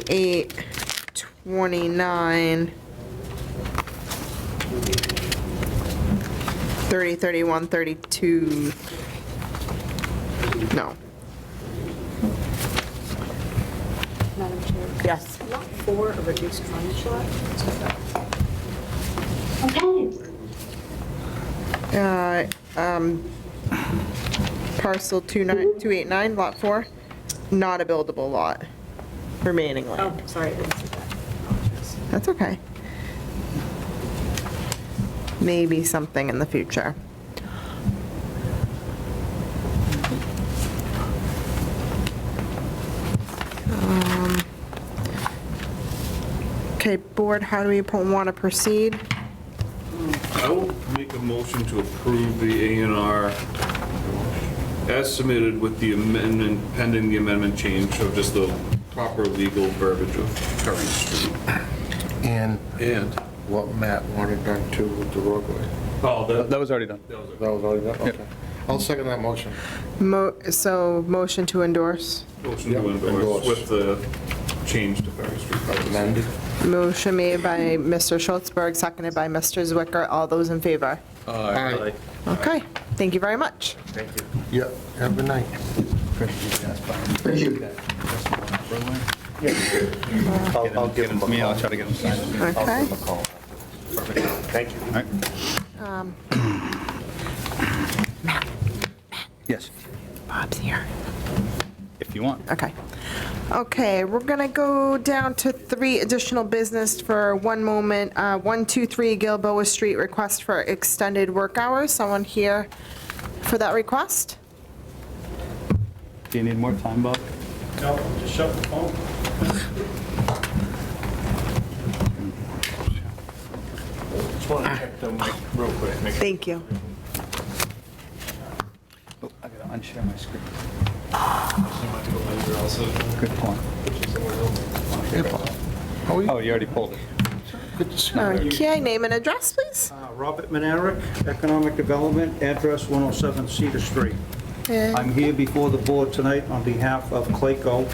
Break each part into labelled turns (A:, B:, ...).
A: 28, 29, 30, 31, 32. No.
B: Madam Chair,
A: Yes.
B: lot four, a reduced frontage lot?
C: Okay.
A: Uh, um, Parcel 29 289, Lot 4, not a buildable lot, remaining
B: Oh,
A: land.
B: sorry, I didn't see that.
A: That's okay. Maybe something in the future. Um, Okay, board, how do we want to proceed?
D: I will make a motion to approve the A and R as submitted with the amendment, pending the amendment change of just the proper legal verbiage of Current Street.
E: And
D: And?
E: what Matt wanted done too with the roadway.
D: Oh,
F: That was already done.
E: That was already done, okay. I'll second that motion.
A: Mo, so motion to endorse.
D: Motion to
E: Yeah,
D: endorse
E: endorse.
D: with the change to Current Street.
E: Amended?
A: Motion made by Mr. Schultzberg, seconded by Mr. Zwicker. All those in favor?
E: Aye.
A: Okay, thank you very much.
E: Yep, have a good night.
F: I'll, I'll give him a I'll try to get him signed.
A: Okay.
F: All right. Yes,
A: Bob's here.
F: if you want.
A: Okay. Okay, we're going to go down to three additional business for one moment. Uh, 123 Gilboa Street, request for extended work hours. Someone here for that request?
F: Do you need more time, Bob?
G: No, just shut the phone. Just want to check the mic real quick, make sure.
A: Thank you.
F: Oh, I gotta unshare my screen.
G: Might go later also.
F: Good point. Oh, you already pulled it.
A: Okay, name and address, please.
G: Uh, Robert Manerick, Economic Development, address 107 Cedar Street. I'm here before the board tonight on behalf of Clayco,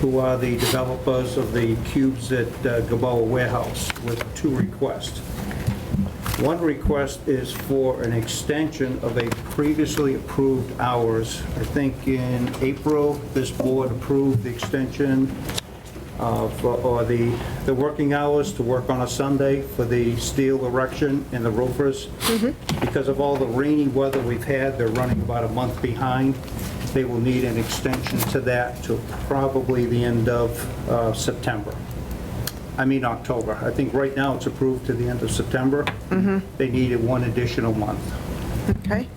G: who are the developers of the cubes at uh, Gilboa Warehouse, with two requests. One request is for an extension of a previously approved hours. I think in April, this board approved the extension of, uh, or the, the working hours to work on a Sunday for the steel erection and the roofers. Because of all the rainy weather we've had, they're running about a month behind. They will need an extension to that to probably the end of uh, September. I mean, October. I think right now it's approved to the end of September. They needed one additional month.
A: Okay.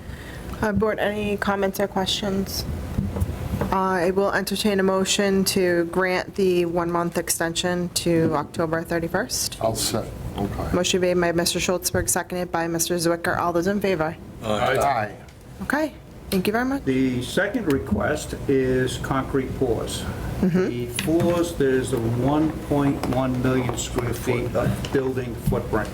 A: Uh, Board, any comments or questions? I will entertain a motion to grant the one-month extension to October 31st.
E: I'll set, okay.
A: Motion made by Mr. Schultzberg, seconded by Mr. Zwicker. All those in favor?
E: Aye.
A: Okay, thank you very much.
G: The second request is concrete pours. The floors, there's a 1.1 million square feet of building footprint.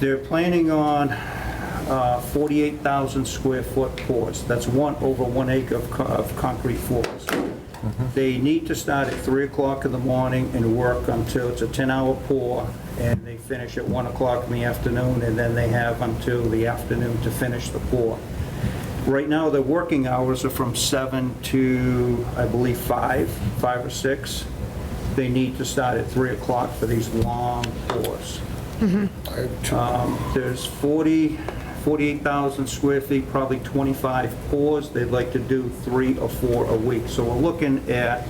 G: They're planning on uh, 48,000 square foot pours. That's one, over one acre of co- of concrete floors. They need to start at 3 o'clock in the morning and work until, it's a 10-hour pour, and they finish at 1 o'clock in the afternoon, and then they have until the afternoon to finish the pour. Right now, their working hours are from 7 to, I believe, 5, 5 or 6. They need to start at 3 o'clock for these long pours.
E: I have two.
G: Um, There's 40, 48,000 square feet, probably 25 pours. They'd like to do three or four a week. So we're looking at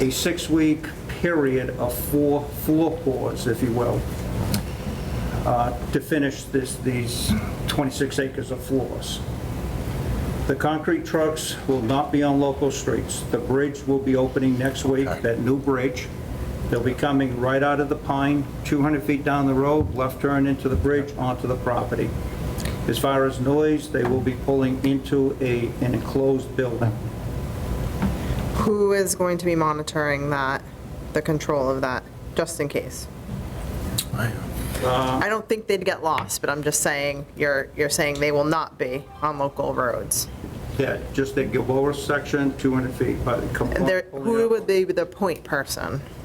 G: a six-week period of four floor pours, if you will, uh, to finish this, these 26 acres of floors. The concrete trucks will not be on local streets. The bridge will be opening next week, that new bridge. They'll be coming right out of the pine, 200 feet down the road, left turn into the bridge, onto the property. As far as noise, they will be pulling into a, an enclosed building.
A: Who is going to be monitoring that, the control of that, just in case? I don't think they'd get lost, but I'm just saying, you're, you're saying they will not be on local roads.
G: Yeah, just the Gilboa section, 200 feet, but.
A: There- Who would be the point person?